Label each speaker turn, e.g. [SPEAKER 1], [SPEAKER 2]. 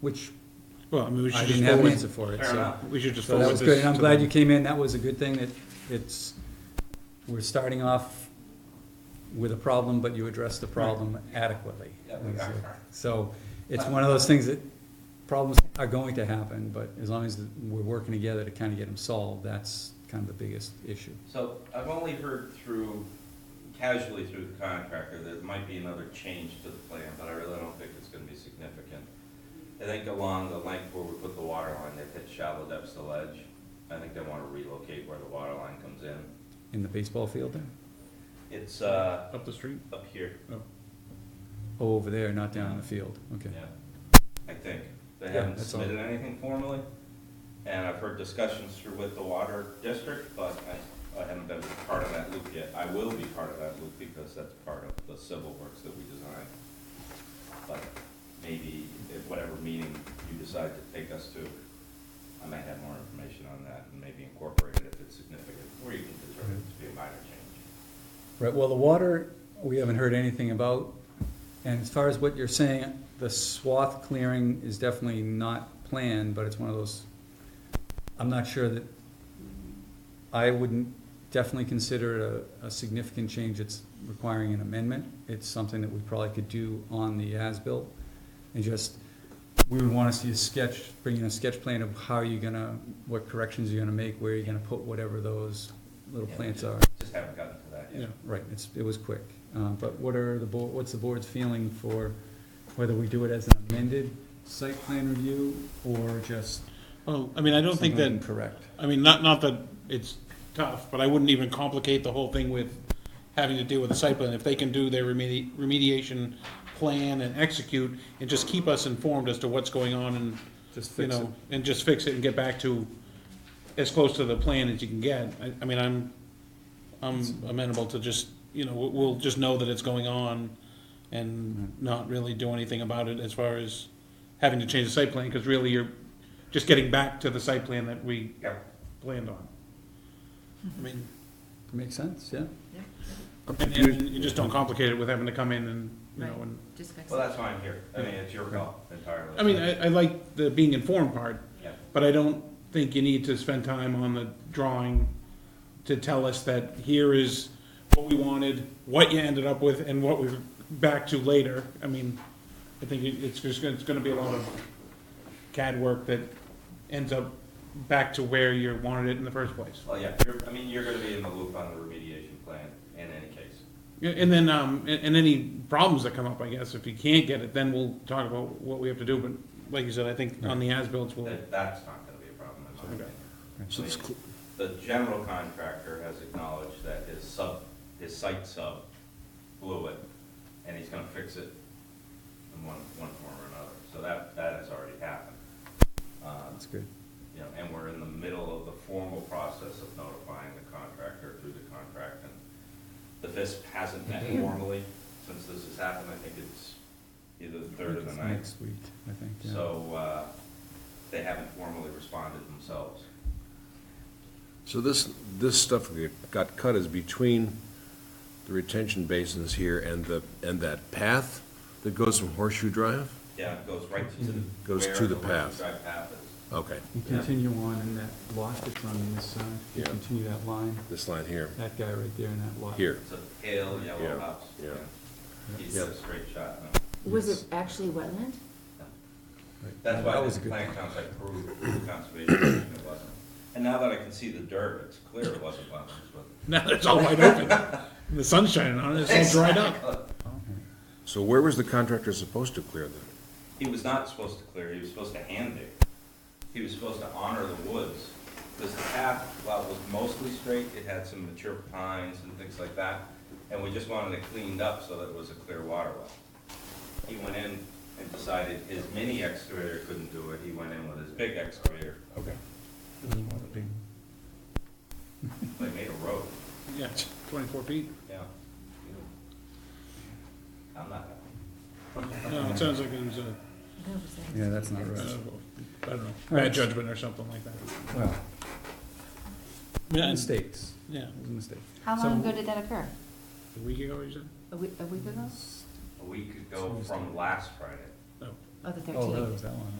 [SPEAKER 1] which
[SPEAKER 2] Well, I mean, we
[SPEAKER 1] I
[SPEAKER 2] should just
[SPEAKER 1] didn't have an
[SPEAKER 2] forward,
[SPEAKER 1] answer for it,
[SPEAKER 3] Fair
[SPEAKER 1] so.
[SPEAKER 3] enough.
[SPEAKER 2] we should just
[SPEAKER 1] So that
[SPEAKER 2] forward
[SPEAKER 1] was good,
[SPEAKER 2] this
[SPEAKER 1] and I'm
[SPEAKER 2] to
[SPEAKER 1] glad
[SPEAKER 2] them.
[SPEAKER 1] you came in, that was a good thing, that it's, we're starting off with a problem, but you addressed the problem adequately.
[SPEAKER 3] Yeah, we are.
[SPEAKER 1] So, it's one of those things that, problems are going to happen, but as long as we're working together to kind of get them solved, that's kind of the biggest issue.
[SPEAKER 3] So I've only heard through, casually through the contractor, there might be another change to the plan, but I really don't think it's gonna be significant. I think along the length where we put the water line, they've hit shallow depths to ledge. I think they wanna relocate where the water line comes in.
[SPEAKER 1] In the baseball field there?
[SPEAKER 3] It's, uh,
[SPEAKER 2] Up the street?
[SPEAKER 3] up here,
[SPEAKER 1] Oh, over there, not down in the field, okay.
[SPEAKER 3] yeah, I think. They
[SPEAKER 1] Yeah,
[SPEAKER 3] haven't
[SPEAKER 1] that's all.
[SPEAKER 3] submitted anything formally, and I've heard discussions through with the water district, but I, I haven't been part of that loop yet. I will be part of that loop because that's part of the civil works that we designed. But maybe at whatever meeting you decide to take us to, I might have more information on that and maybe incorporate it if it's significant, or you can determine it to be a minor change.
[SPEAKER 1] Right, well, the water, we haven't heard anything about, and as far as what you're saying, the swath clearing is definitely not planned, but it's one of those, I'm not sure that, I wouldn't definitely consider it a, a significant change, it's requiring an amendment, it's something that we probably could do on the as-built, and just, we would wanna see a sketch, bring in a sketch plan of how you're gonna, what corrections you're gonna make, where you're gonna put whatever those little
[SPEAKER 3] Yeah, we
[SPEAKER 1] plants
[SPEAKER 3] just-
[SPEAKER 1] are.
[SPEAKER 3] Just haven't gotten to that
[SPEAKER 1] Yeah,
[SPEAKER 3] yet.
[SPEAKER 1] right, it's, it was quick. Um, but what are the board, what's the board's feeling for whether we do it as an amended site plan review or just?
[SPEAKER 2] Oh, I mean, I don't think
[SPEAKER 1] something
[SPEAKER 2] that,
[SPEAKER 1] Correct.
[SPEAKER 2] I mean, not, not that it's tough, but I wouldn't even complicate the whole thing with having to deal with the site plan. If they can do their remedi- remediation plan and execute, and just keep us informed as to what's going on and,
[SPEAKER 1] Just
[SPEAKER 2] you
[SPEAKER 1] fix it.
[SPEAKER 2] know, and just fix it and get back to as close to the plan as you can get. I, I mean, I'm, I'm amenable to just, you know, we'll, we'll just know that it's going on and not really do anything about it as far as having to change the site plan, because really you're just getting back to the site plan that we
[SPEAKER 3] Yeah.
[SPEAKER 2] planned on. I mean,
[SPEAKER 1] Makes sense, yeah?
[SPEAKER 2] and, and you just don't complicate it with having to come in and, you know, and,
[SPEAKER 4] Just fix
[SPEAKER 3] Well,
[SPEAKER 4] it.
[SPEAKER 3] that's why I'm here. I mean, it's your call entirely.
[SPEAKER 2] I mean, I, I like the being informed part,
[SPEAKER 3] Yeah.
[SPEAKER 2] But I don't think you need to spend time on the drawing to tell us that here is what we wanted, what you ended up with, and what we're back to later. I mean, I think it- it's just, gonna- it's gonna be a lot of CAD work that ends up back to where you wanted it in the first place.
[SPEAKER 3] Well, yeah, you're, I mean, you're gonna be in the loop on the remediation plan in any case.
[SPEAKER 2] And then, um, and, and any problems that come up, I guess, if you can't get it, then we'll talk about what we have to do, but like you said, I think on the as-bills, we'll,
[SPEAKER 3] That, that's not gonna be a problem in my opinion.
[SPEAKER 1] So
[SPEAKER 3] I mean, The general contractor has acknowledged that his sub, his site sub blew it, and he's gonna fix it in one, one form or another. So that, that has already happened. Uh,
[SPEAKER 1] That's good.
[SPEAKER 3] you know, and we're in the middle of the formal process of notifying the contractor through the contract, and the FISP hasn't met formally since this has happened, I think it's either the third or the
[SPEAKER 1] It's
[SPEAKER 3] ninth,
[SPEAKER 1] Next week, I think, yeah.
[SPEAKER 3] so, uh, they haven't formally responded themselves.
[SPEAKER 5] So this, this stuff that got cut is between the retention basins here and the, and that path that goes from Horseshoe Drive?
[SPEAKER 3] Yeah, it goes right to the.
[SPEAKER 5] Goes
[SPEAKER 3] where
[SPEAKER 5] to the
[SPEAKER 3] Lincoln
[SPEAKER 5] path.
[SPEAKER 3] Drive path is.
[SPEAKER 5] Okay,
[SPEAKER 6] You
[SPEAKER 3] Yeah.
[SPEAKER 6] continue on in that lot that's on this side, you
[SPEAKER 5] Yeah.
[SPEAKER 6] continue that line,
[SPEAKER 5] this line here,
[SPEAKER 6] that guy right there in that lot.
[SPEAKER 5] here.
[SPEAKER 3] It's a pale yellow
[SPEAKER 5] Yeah,
[SPEAKER 3] house.
[SPEAKER 5] yeah.
[SPEAKER 3] He's
[SPEAKER 5] Yeah.
[SPEAKER 3] got a straight shot, no.
[SPEAKER 4] Was it actually wetland?
[SPEAKER 1] Right.
[SPEAKER 3] That's
[SPEAKER 1] That
[SPEAKER 3] why
[SPEAKER 1] was
[SPEAKER 3] this
[SPEAKER 1] a good
[SPEAKER 3] plan sounds like approved through the conservation, commission, it wasn't. And now that I can see the dirt, it's clear it wasn't wetlands, but.
[SPEAKER 2] now that it's all wide open. The sun's shining on it, it's all dried up.
[SPEAKER 5] So where was the contractor supposed to clear that?
[SPEAKER 3] He was not supposed to clear, he was supposed to hand dig. He was supposed to honor the woods, because the path, while it was mostly straight, it had some mature pines and things like that, and we just wanted it cleaned up so that it was a clear water well. He went in and decided his mini excavator couldn't do it, he went in with his big excavator. Okay. They made a road,
[SPEAKER 2] Yeah, it's twenty-four feet.
[SPEAKER 3] yeah. I'm not happy.
[SPEAKER 2] No, it sounds like it was a,
[SPEAKER 1] Yeah, that's not
[SPEAKER 2] uh,
[SPEAKER 1] right.
[SPEAKER 2] I don't know,
[SPEAKER 1] Alright.
[SPEAKER 2] bad judgment or something like that.
[SPEAKER 1] Well,
[SPEAKER 2] Yeah, and-
[SPEAKER 1] mistakes,
[SPEAKER 2] Yeah,
[SPEAKER 1] it was a mistake.
[SPEAKER 4] How long
[SPEAKER 1] So-
[SPEAKER 4] ago did that occur?
[SPEAKER 2] a week ago, you said?
[SPEAKER 4] A week, a week ago?
[SPEAKER 3] A week ago from last Friday.
[SPEAKER 2] No.
[SPEAKER 4] Oh, the
[SPEAKER 1] Oh, really, it
[SPEAKER 4] thirteenth.
[SPEAKER 1] was that long?